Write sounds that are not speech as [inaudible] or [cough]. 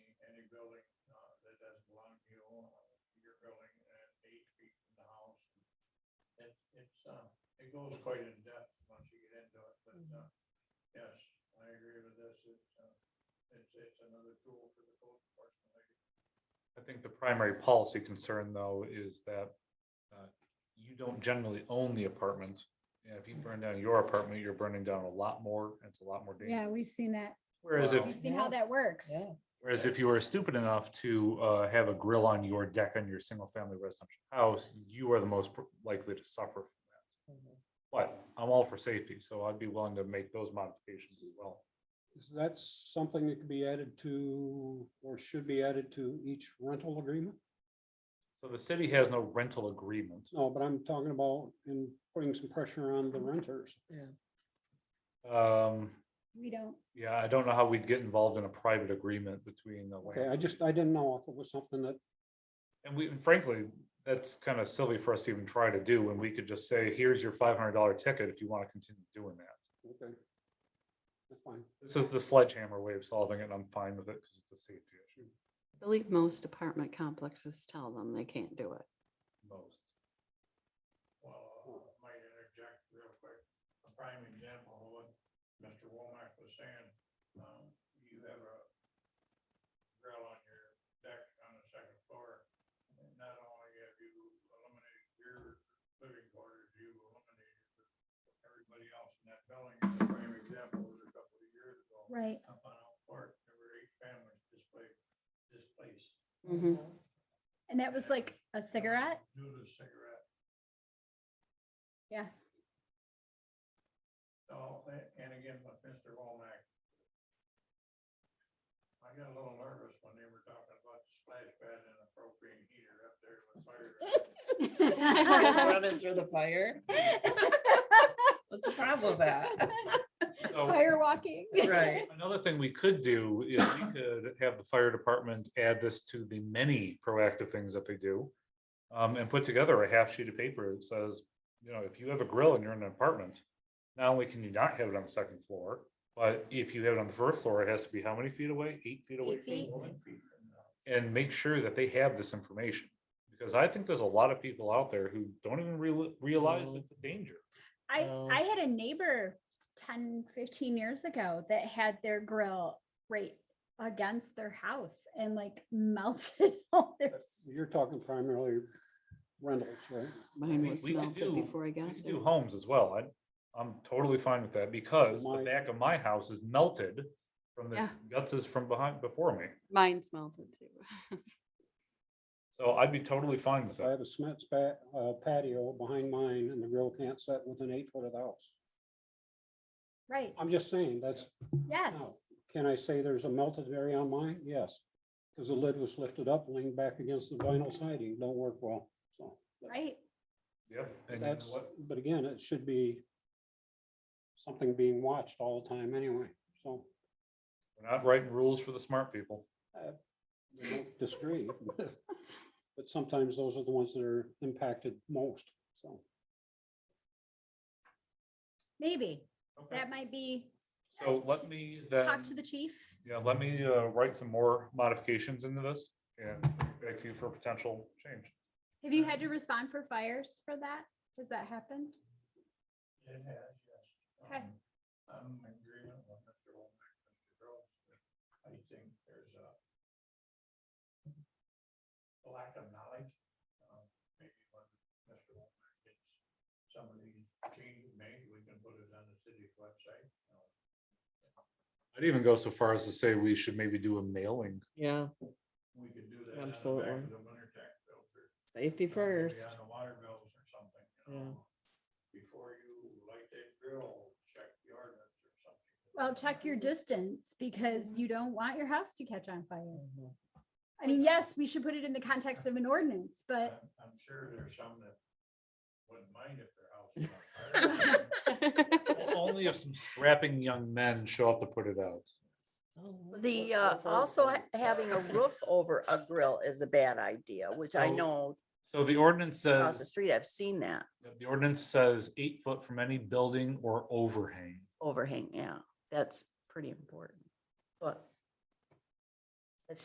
uh, building at eight feet from the house. It, it's, uh, it goes quite in depth once you get into it, but, uh, yes, I agree with this, it's, uh, it's, it's another tool for the code enforcement, I guess. I think the primary policy concern though is that uh, you don't generally own the apartment. And if you burn down your apartment, you're burning down a lot more. and It's a lot more dangerous. Yeah, we've seen that. Whereas if, We've seen how Yeah. that works. Yeah. whereas if you were stupid enough to uh, have a grill on your deck on your single family residential house, you are the most pr- likely to suffer. Mhm. But I'm all for safety, so I'd be willing to make those modifications as well. Is that something that could be added to, or should be added to each rental agreement? So the city has no rental agreement. No, but I'm talking about in putting some pressure on the renters. Um, We don't, Yeah, I don't know how we'd get involved in a private agreement between the Okay, I land. just, I didn't know if it was something that, And we, and frankly, that's kind of silly for us to even try to do, when we could just say, here's your five hundred dollar ticket if you want to continue doing that. okay. That's fine. This is the sledgehammer way of solving it, and I'm fine with it because it's a safety issue I believe most apartment complexes tell them they can't do it. most. Well, Uh, I might interject real quick, a prime example of what Mr. Womack was saying, um, you have a grill on your deck on the second floor, and not only have you eliminated your living quarters, you eliminated everybody else in that building, and the prime example was a couple of years ago. right. Up on Elk Park, there were eight families displaced, displaced. And that was like a cigarette? Due to cigarette. Yeah. [laughs] So, a- and again, with Mr. Womack. I got a little nervous when they were talking about the splash pad and a propane heater up there with fire. [laughs] Running through the fire. What's the problem with that? [laughs] So Fire walking. [laughs] Right. another thing we could do is we could have the fire department add this to the many proactive things that they do. Um, and put together a half sheet of paper that says, you know, if you have a grill and you're in an apartment, not only can you not have it on the second floor, but if you have it on the first floor, it has to be how many feet away? Eight feet away? Eight feet. One feet from the and make sure that they have this information. Because I think there's a lot of people out there who don't even real- realize Mhm. it's a danger. I, No. I had a neighbor 10, 15 years ago that had their grill right against their house and like [laughs] melted all their. You're talking primarily rentals, right? Mine We- was we could melted do- before I We got could there. Do homes as well. I, I'm totally fine with that because the My- back of my house is melted from the Yeah. guts is from behind, before me. Mine's melted too. So I'd be totally fine with I that. have a Smith's pa- uh, patio behind mine and the grill can't set within eight foot of the house. Right, Oh. I'm just saying, that's, yes. can I say there's a melted area on mine? Yes. Because the lid was lifted up, leaned back against the vinyl siding, don't work well, so. Right, Yep. And you know That's, what? but again, it should be something being watched all the time anyway, so We're not writing rules for the smart people. I [laughs] don't disagree. but- But sometimes those are the ones that are impacted most, so. maybe. Okay. That might be, So let me then, talk to the chief. yeah, let me, uh, write some more modifications into this and back to you for potential change. Have you had to respond for fires for that? Has that happened? It has, yes. Okay. Um, I'm in agreement with Mr. Womack, Mr. Groves, that I think there's a lack of knowledge, um, maybe when Mr. Womack gets some of these changes made, we can put it on the city's website. you know. I'd even go so far as to say we should maybe do a mailing. Yeah, We could do that. on the back Absolutely. of The winter tax bills or. safety you know, maybe first. On the water bills or something, you Yeah. know. Before you light that grill, check the ordinance or something. Well, check [laughs] your distance because you don't want your house to catch on fire. Mhm. I mean, yes, we should put it in the context of an ordinance, but I'm- I'm sure there's some that wouldn't mind if their house was on fire. Only if some scrapping young men show up to put it out. Oh, [laughs] The, [laughs] Or- uh, or- also ha- having a roof over a grill is a bad idea, which I So- know So the ordinance across the says, street, I've seen that the ordinance says eight foot from any building or overhang. overhang, yeah, that's pretty important. But